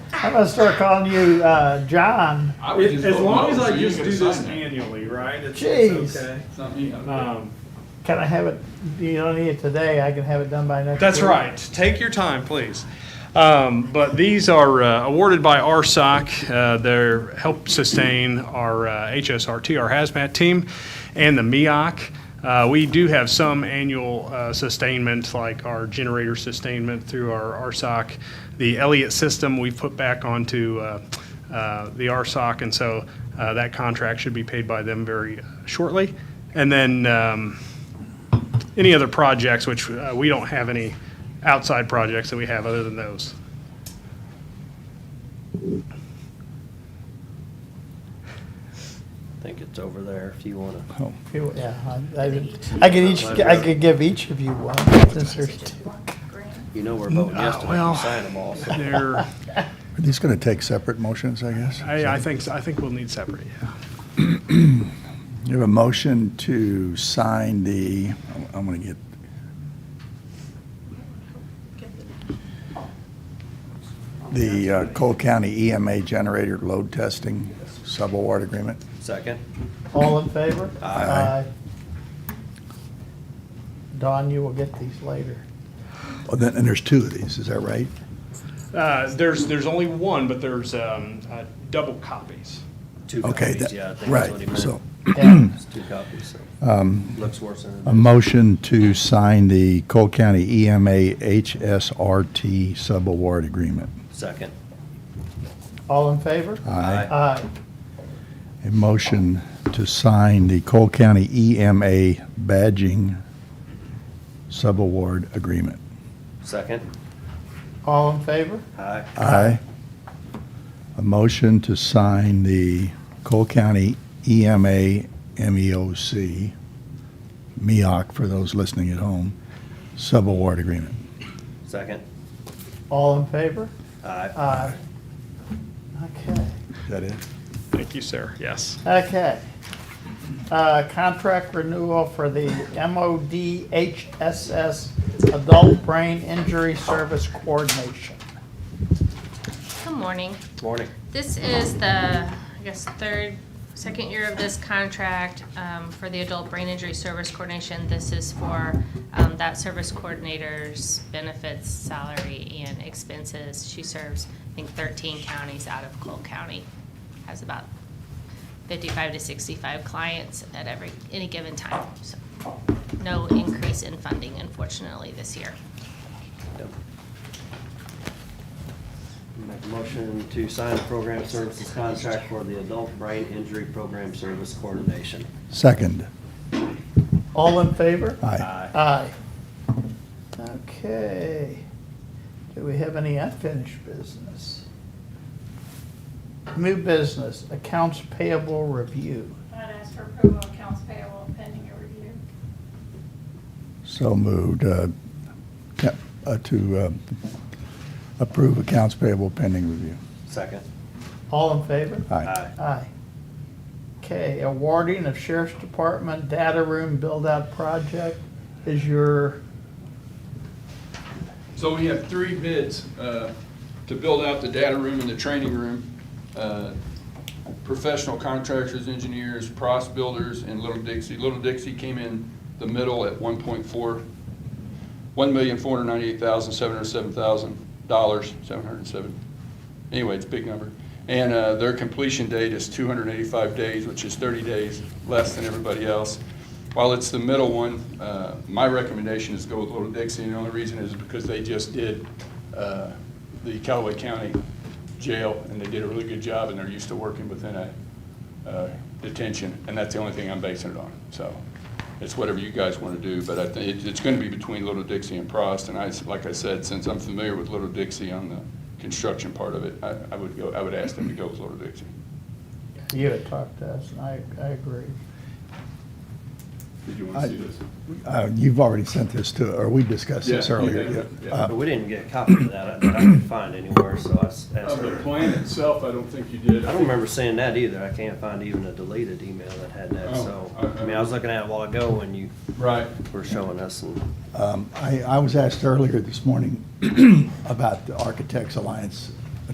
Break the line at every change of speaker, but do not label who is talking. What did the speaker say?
I'm gonna start calling you uh, John.
I would just
As
vote
long
no,
as
so
I
you
just
can
do
sign
this
that.
annually, right? It's
Jeez.
it's okay.
It's not me, okay.
Um,
Can I have it? You don't need it today. I can have it done by next.
That's
week.
right. Take your time, please. Um, but these are uh, awarded by RSOC. Uh, they help sustain our uh, HSRT, our hazmat team, and the MEOC. Uh, we do have some annual uh, sustainment, like our generator sustainment through our RSOC. The Elliott system we put back onto uh, uh, the RSOC, and so uh, that contract should be paid by them very uh, shortly. And then um, any other projects, which uh, we don't have any outside projects that we have other than those.
I think it's over there if you wanna.
If you- Yeah, I, I, did- I could each. I could give each of you one. Since there's two.
You know we're
Mm,
voting
Uh,
yes to
well-
make you sign them all. so.
There,
Are these going to take separate motions, I guess?
I, I think, I think we'll need separate, yeah.
You have a motion to sign the, I'm going to get, the uh, Cole County EMA generator load testing subaward agreement.
Second,
All in favor?
Aye.
Don, you will get these later.
Oh, then, and there's two of these, is that right?
Uh, there's, there's only one, but there's, um, uh, double copies.
two
Okay,
copies,
that-
yeah, I think that's what he
right,
meant.
so, um,
Yeah.
It's two copies, so. Looks worse than. it
a
is.
motion to sign the Cole County E EMA HSRT subaward agreement.
Second.
All in favor?
Aye.
Aye.
A motion to sign the Cole County EMA badging subaward agreement.
Second,
All in favor?
aye.
Aye. A motion to sign the Cole County E EMA E MEOC, MEOC E for those listening at home, subaward agreement.
Second,
All in favor?
aye.
Aye. Okay,
Is that it?
Thank you, sir, yes.
okay. Uh, Contract renewal for the MOD HSS Adult Brain Injury Service Coordination.
Good morning.
Morning.
This is the, I guess, third, second year of this contract um, for the Adult Brain Injury Service Coordination. This is for um, that service coordinator's benefits, salary, and expenses. She serves, I think, 13 counties out of Cole County. Has about 55 to 65 clients at every, any given time. So No increase in funding, unfortunately, this year.
Yep. Make a motion to sign the program services contract for the adult brain injury program service coordination.
Second.
All in favor?
Aye.
Aye.
Aye. Okay. Do we have any unfinished business? New business, accounts payable review.
I'd ask for approval of accounts payable pending a review.
So moved uh, ca- uh, to uh, approve accounts payable pending review.
Second,
All in favor?
Aye.
aye.
Aye. Okay, awarding of Sheriff's Department Data Room Build-Out Project is your,
So we have three bids uh, to build out the data room and the training room. Uh, Professional contractors, engineers, Pross Builders, and Little Dixie. Little Dixie came in the middle at 1.4, $1,498,707,000, 707. Anyway, it's a big number. And uh, their completion date is 285 days, which is 30 days less than everybody else. While it's the middle one, uh, my recommendation is go with Little Dixie, and the only reason is because they just did uh, the Callaway County Jail, and they did a really good job, and they're used to working within a uh, detention, and that's the only thing I'm basing it on. So it's whatever you guys want to do, but I think it- it's going to be between Little Dixie and Prost. And I, like I said, since I'm familiar with Little Dixie on the construction part of it, I I would go, I would ask them to go with Little Dixie.
you had talked to us, and I, I agree.
Did you
wanna see this? Uh, You've already sent this to, or we discussed this
Yeah,
earlier.
yeah,
yeah.
yeah.
But we didn't get a copy of that that I could find anywhere, so I s- asked her.
itself, I don't think you did.
I don't remember seeing that either. I can't find even a deleted email that had that,
Oh,
so,
okay.
I mean, I was looking at it a while ago when you
Right.
were showing us and,
Um, I, I was asked earlier this morning about the Architects Alliance